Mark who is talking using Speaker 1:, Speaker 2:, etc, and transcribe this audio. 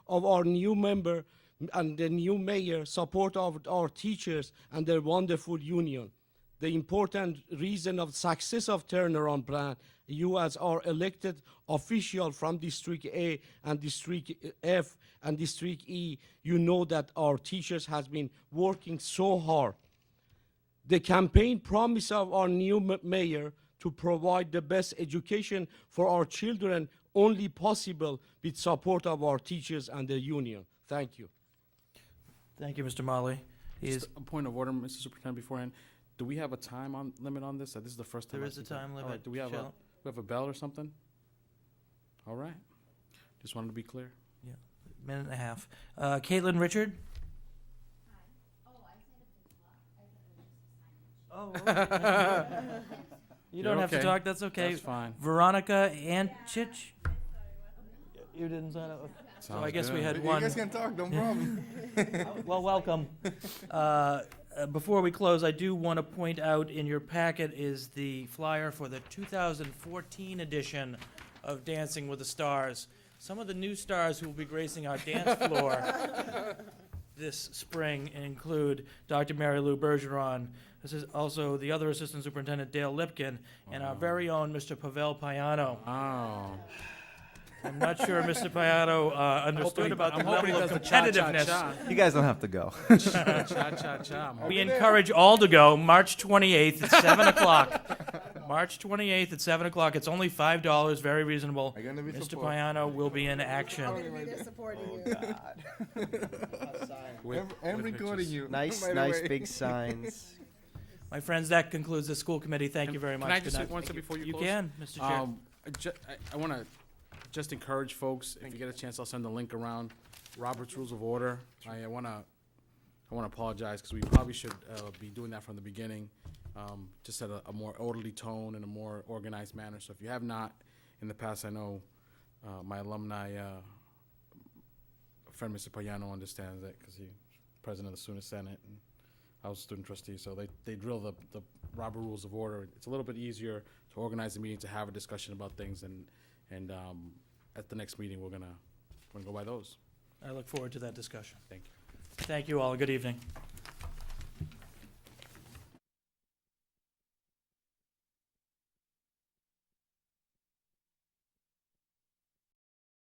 Speaker 1: of our new member and the new mayor, support of our teachers and their wonderful union. The important reason of success of turnaround plan, you as our elected official from District A and District F and District E, you know that our teachers has been working so hard the campaign promise of our new m- mayor to provide the best education for our children only possible with support of our teachers and the union. Thank you.
Speaker 2: Thank you, Mr. Molly. He is,
Speaker 3: Just a point of order, Mr. Superintendent, beforehand, do we have a time on, limit on this? Uh, This is the first time.
Speaker 2: there
Speaker 3: I
Speaker 2: is a
Speaker 3: see that.
Speaker 2: time
Speaker 3: All
Speaker 2: limit.
Speaker 3: right, Do we have a,
Speaker 2: Shall-
Speaker 3: we have a bell or something? All right, just wanted to be clear.
Speaker 2: Minute and a half. Uh, Caitlin Richard? Oh, okay. You don't
Speaker 3: You're
Speaker 2: have to
Speaker 3: okay.
Speaker 2: talk, that's okay.
Speaker 3: That's fine.
Speaker 2: Veronica Anchich? You didn't sign up. So I
Speaker 3: Sounds
Speaker 2: guess we
Speaker 3: good.
Speaker 2: had
Speaker 4: You
Speaker 2: one.
Speaker 4: guys can talk, no problem.
Speaker 2: Well, welcome. Uh, uh, Before we close, I do want to point out in your packet is the flyer for the 2014 edition of Dancing with the Stars. Some of the new stars who will be gracing our dance floor this spring include Dr. Mary Lou Bergeron. This is also the other Assistant Superintendent Dale Lipkin and our very own Mr. Pavel Payano.
Speaker 3: Oh.
Speaker 2: I'm not sure Mr. Payano uh, understood
Speaker 3: he-
Speaker 2: about the
Speaker 3: I'm hoping he
Speaker 2: level of
Speaker 3: does the cha-cha-cha.
Speaker 2: competitiveness.
Speaker 4: You guys don't have to go.
Speaker 3: Cha-cha-cha. I'm
Speaker 2: We
Speaker 3: hoping-
Speaker 2: encourage all to go March 28th at 7 o'clock. March 28th at 7 o'clock. It's only $5, very reasonable.
Speaker 4: Are you gonna be
Speaker 2: Mr.
Speaker 4: supportive?
Speaker 2: Payano will be in action.
Speaker 5: gonna be there supporting you.
Speaker 3: with-
Speaker 4: I'm- I'm
Speaker 3: with
Speaker 4: recording
Speaker 3: pictures.
Speaker 4: you.
Speaker 6: Nice,
Speaker 4: by the
Speaker 6: nice
Speaker 4: way.
Speaker 6: big signs.
Speaker 2: My friends, that concludes the school committee. Thank you very
Speaker 3: Can
Speaker 2: much.
Speaker 3: I
Speaker 2: Good
Speaker 3: just say
Speaker 2: night.
Speaker 3: one thing before you
Speaker 2: You
Speaker 3: close?
Speaker 2: can, Mr. Chair.
Speaker 3: Um, I ju- I, I wanna just encourage folks, if you get a chance, I'll send the link around, Robert's Rules of Order. I, I wanna, I wanna apologize, because we probably should, uh, be doing that from the beginning, um, just at a, a more orderly tone and a more organized manner. So if you have not, in the past, I know, uh, my alumni, uh, friend Mr. Payano understands that, because he's president of the Sooner Senate, and I was a student trustee, so they, they drill the, the Robert Rules of Order. It's a little bit easier to organize a meeting, to have a discussion about things, and, and, um, at the next meeting, we're gonna, we're gonna go by those.
Speaker 2: I look forward to that discussion.
Speaker 3: Thank you.
Speaker 2: Thank you all. Good evening.